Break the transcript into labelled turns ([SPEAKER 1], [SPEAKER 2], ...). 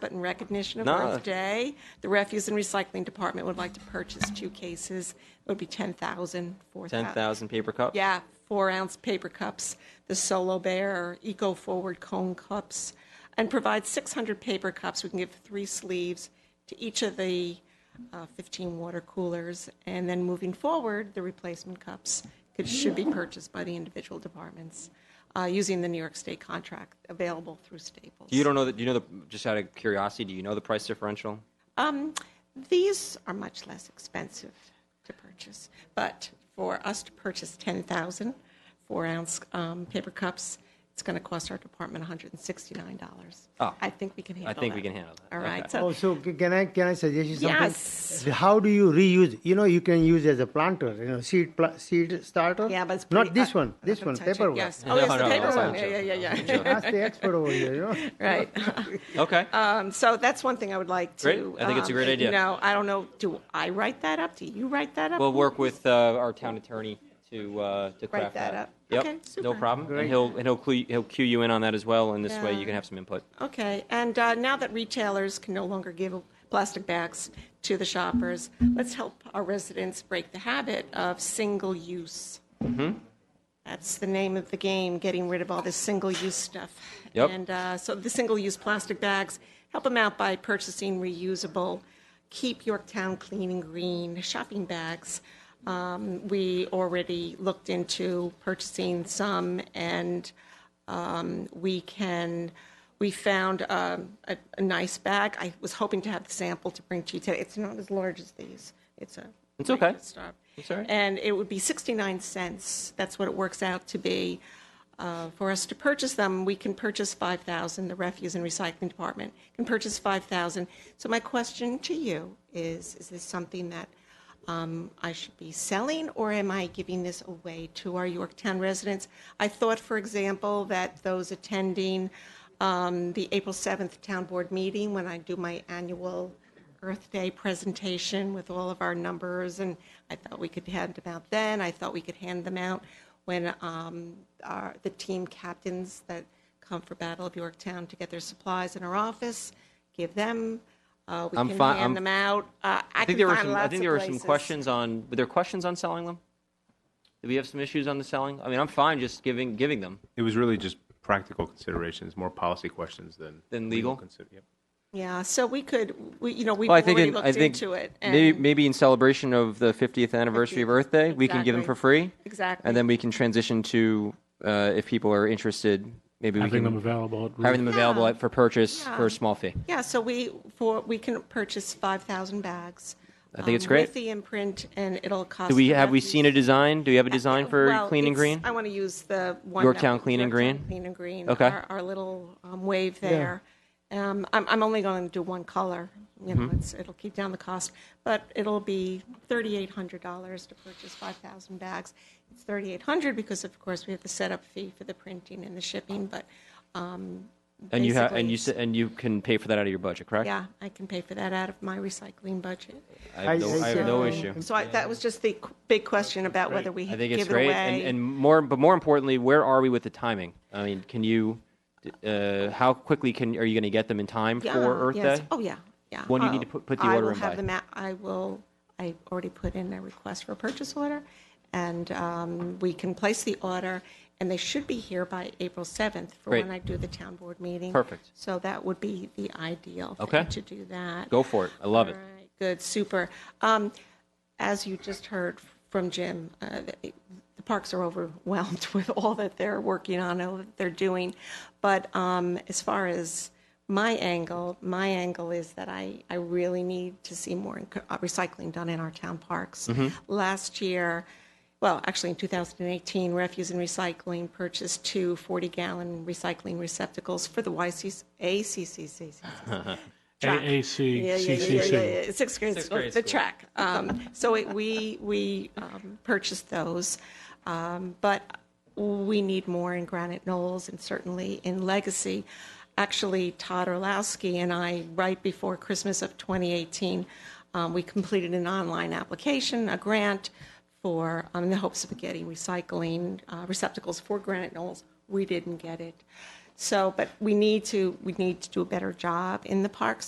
[SPEAKER 1] but in recognition of
[SPEAKER 2] Nah.
[SPEAKER 1] Earth Day, the Refuse and Recycling Department would like to purchase two cases. It would be 10,000 for that.
[SPEAKER 2] 10,000 paper cups?
[SPEAKER 1] Yeah, four ounce paper cups, the Solo Bear or Eco Forward cone cups, and provide 600 paper cups. We can give three sleeves to each of the uh, 15 water coolers. And then moving forward, the replacement cups could, should be purchased by the individual departments uh, using the New York State contract available through Staples.
[SPEAKER 2] You don't know that, do you know the, just out of curiosity, do you know the price differential?
[SPEAKER 1] Um, these are much less expensive to purchase, but for us to purchase 10,000 four ounce um, paper cups, it's going to cost our department $169.
[SPEAKER 2] Oh.
[SPEAKER 1] I think we can handle that.
[SPEAKER 2] think we can handle that.
[SPEAKER 1] All right.
[SPEAKER 2] Okay.
[SPEAKER 1] So,
[SPEAKER 3] Oh, so c- can I can I suggest you something?
[SPEAKER 1] Yes.
[SPEAKER 3] How do you reuse? You know, you can use as a planter. You know, seed pl- seed starter.
[SPEAKER 1] yeah, but it's
[SPEAKER 3] Oh, not
[SPEAKER 1] pretty-
[SPEAKER 3] this
[SPEAKER 1] I-
[SPEAKER 3] one.
[SPEAKER 1] I'm
[SPEAKER 3] This
[SPEAKER 1] not gonna
[SPEAKER 3] one,
[SPEAKER 1] touch it.
[SPEAKER 3] paper one.
[SPEAKER 1] Yes.
[SPEAKER 2] No,
[SPEAKER 1] Oh, yes,
[SPEAKER 2] no,
[SPEAKER 1] the
[SPEAKER 2] no,
[SPEAKER 1] paper
[SPEAKER 2] that's
[SPEAKER 1] one.
[SPEAKER 2] not
[SPEAKER 1] Yeah,
[SPEAKER 2] true.
[SPEAKER 1] yeah, yeah, yeah.
[SPEAKER 3] Ask the expert over here. You know.
[SPEAKER 1] Right.
[SPEAKER 2] Okay.
[SPEAKER 1] Um, so that's one thing I would like to.
[SPEAKER 2] Great. I think it's a
[SPEAKER 1] um,
[SPEAKER 2] great idea.
[SPEAKER 1] You know, I don't know. Do I write that up? Do you write that up?
[SPEAKER 2] We'll work with uh, our town attorney to uh, to craft
[SPEAKER 1] that up.
[SPEAKER 2] Yep,
[SPEAKER 1] Okay,
[SPEAKER 2] no
[SPEAKER 1] super.
[SPEAKER 2] problem.
[SPEAKER 3] Great.
[SPEAKER 2] And he'll and he'll clue, he'll cue you in on that as well. And this way, you
[SPEAKER 1] Yeah.
[SPEAKER 2] can have some input.
[SPEAKER 1] Okay, and uh, now that retailers can no longer give plastic bags to the shoppers, let's help our residents break the habit of single use. That's the name of the game, getting rid of all this single use stuff.
[SPEAKER 2] Yep.
[SPEAKER 1] And uh, so the single use plastic bags, help them out by purchasing reusable, keep Yorktown clean and green shopping bags. Um, we already looked into purchasing some and um, we can, we found um, a, a nice bag. I was hoping to have the sample to bring to you today. It's not as large as these. It's a.
[SPEAKER 2] It's okay.
[SPEAKER 1] Stop.
[SPEAKER 2] It's all right.
[SPEAKER 1] And it would be 69 cents. That's what it works out to be. Uh, for us to purchase them, we can purchase 5,000. The refuse and recycling department can purchase 5,000. So my question to you is, is this something that um, I should be selling, or am I giving this away to our Yorktown residents? I thought, for example, that those attending um, the April 7th Town Board meeting, when I do my annual Earth Day presentation with all of our numbers, and I thought we could hand them out then, I thought we could hand them out when um, our, the team captains that come for Battle of Yorktown to get their supplies in our office, give them, uh, we
[SPEAKER 2] I'm
[SPEAKER 1] can
[SPEAKER 2] fi- I'm-
[SPEAKER 1] hand them out. Uh, I
[SPEAKER 2] I think
[SPEAKER 1] can
[SPEAKER 2] there were
[SPEAKER 1] find
[SPEAKER 2] some.
[SPEAKER 1] lots
[SPEAKER 2] I
[SPEAKER 1] of
[SPEAKER 2] think there were some
[SPEAKER 1] places.
[SPEAKER 2] questions on. Were there questions on selling them? Did we have some issues on the selling? I mean, I'm fine just giving giving them.
[SPEAKER 4] It was really just practical considerations, more policy questions than
[SPEAKER 2] Than legal?
[SPEAKER 4] consider- yep.
[SPEAKER 1] Yeah, so we could, we, you know, we've
[SPEAKER 2] Well, I think
[SPEAKER 1] already
[SPEAKER 2] in,
[SPEAKER 1] looked
[SPEAKER 2] I think
[SPEAKER 1] into it.
[SPEAKER 2] maybe
[SPEAKER 1] and-
[SPEAKER 2] maybe in celebration of the 50th anniversary of Earth Day, we can give them
[SPEAKER 1] Exactly.
[SPEAKER 2] for free.
[SPEAKER 1] Exactly.
[SPEAKER 2] And then we can transition to uh, if people are interested, maybe we
[SPEAKER 5] having
[SPEAKER 2] can
[SPEAKER 5] them available at
[SPEAKER 2] having them available
[SPEAKER 1] Yeah.
[SPEAKER 2] at, for purchase
[SPEAKER 1] Yeah.
[SPEAKER 2] for a small fee.
[SPEAKER 1] Yeah, so we, for, we can purchase 5,000 bags.
[SPEAKER 2] I think it's
[SPEAKER 1] um,
[SPEAKER 2] great.
[SPEAKER 1] With the imprint, and it'll cost.
[SPEAKER 2] Do we
[SPEAKER 1] the
[SPEAKER 2] have we
[SPEAKER 1] refuse-
[SPEAKER 2] seen a design? Do we have a design for
[SPEAKER 1] Uh, Well,
[SPEAKER 2] clean and
[SPEAKER 1] it's- uh,
[SPEAKER 2] green?
[SPEAKER 1] I want to use the one.
[SPEAKER 2] Yorktown
[SPEAKER 1] that-
[SPEAKER 2] Clean and
[SPEAKER 1] Yorktown
[SPEAKER 2] Green?
[SPEAKER 1] Clean and Green.
[SPEAKER 2] Okay.
[SPEAKER 1] Our, our little um, wave there. Um, I'm, I'm only going to do one color. You know,
[SPEAKER 2] Mm-hmm.
[SPEAKER 1] it's, it'll keep down the cost, but it'll be $3,800 to purchase 5,000 bags. It's 3,800 because, of course, we have the setup fee for the printing and the shipping, but um,
[SPEAKER 2] and you have and
[SPEAKER 1] basically-
[SPEAKER 2] you sa- and you can pay for that out of your budget, correct?
[SPEAKER 1] yeah, I can pay for that out of my recycling budget. Um,
[SPEAKER 2] I have no, I have no
[SPEAKER 3] I-
[SPEAKER 2] issue.
[SPEAKER 1] So I, that was just the qu- big question about whether we
[SPEAKER 2] I think it's
[SPEAKER 1] give it
[SPEAKER 2] great,
[SPEAKER 1] away.
[SPEAKER 2] and, and more, but more importantly, where are we with the timing? I mean, can you, uh, how quickly can are you going to get them in time
[SPEAKER 1] Yeah,
[SPEAKER 2] for Earth
[SPEAKER 1] yes.
[SPEAKER 2] Day?
[SPEAKER 1] Oh, yeah, yeah.
[SPEAKER 2] When do you need
[SPEAKER 1] Oh,
[SPEAKER 2] to put- put the
[SPEAKER 1] I
[SPEAKER 2] order
[SPEAKER 1] will
[SPEAKER 2] in
[SPEAKER 1] have
[SPEAKER 2] by?
[SPEAKER 1] the ma- I will, I already put in a request for a purchase order, and um, we can place the order, and they should be here by April 7th for
[SPEAKER 2] Great.
[SPEAKER 1] when I do the town board meeting.
[SPEAKER 2] Perfect.
[SPEAKER 1] So that would be the ideal
[SPEAKER 2] Okay.
[SPEAKER 1] thing to do that.
[SPEAKER 2] Go for it. I love it.
[SPEAKER 1] All right, good, super. Um, as you just heard from Jim, uh, the the parks are overwhelmed with all that they're working on, all that they're doing. But um, as far as my angle, my angle is that I, I really need to see more enc- uh, recycling done in our town parks. Last year, well, actually in 2018, Refuse and Recycling purchased two 40 gallon recycling receptacles for the YCC, ACCC. É,
[SPEAKER 5] AAC,
[SPEAKER 1] Yeah, yeah, yeah, yeah,
[SPEAKER 5] CCC.
[SPEAKER 1] yeah, yeah. Sixth grade school, the track. Um, so it, we we um, purchased those, um, but we need more in Granite Knolls and certainly in Legacy. Actually, Todd Orlowski and I, right before Christmas of 2018, um, we completed an online application, a grant for um, in the hopes of getting recycling uh, receptacles for Granite Knolls. We didn't get it. So, but we need to, we need to do a better job in the parks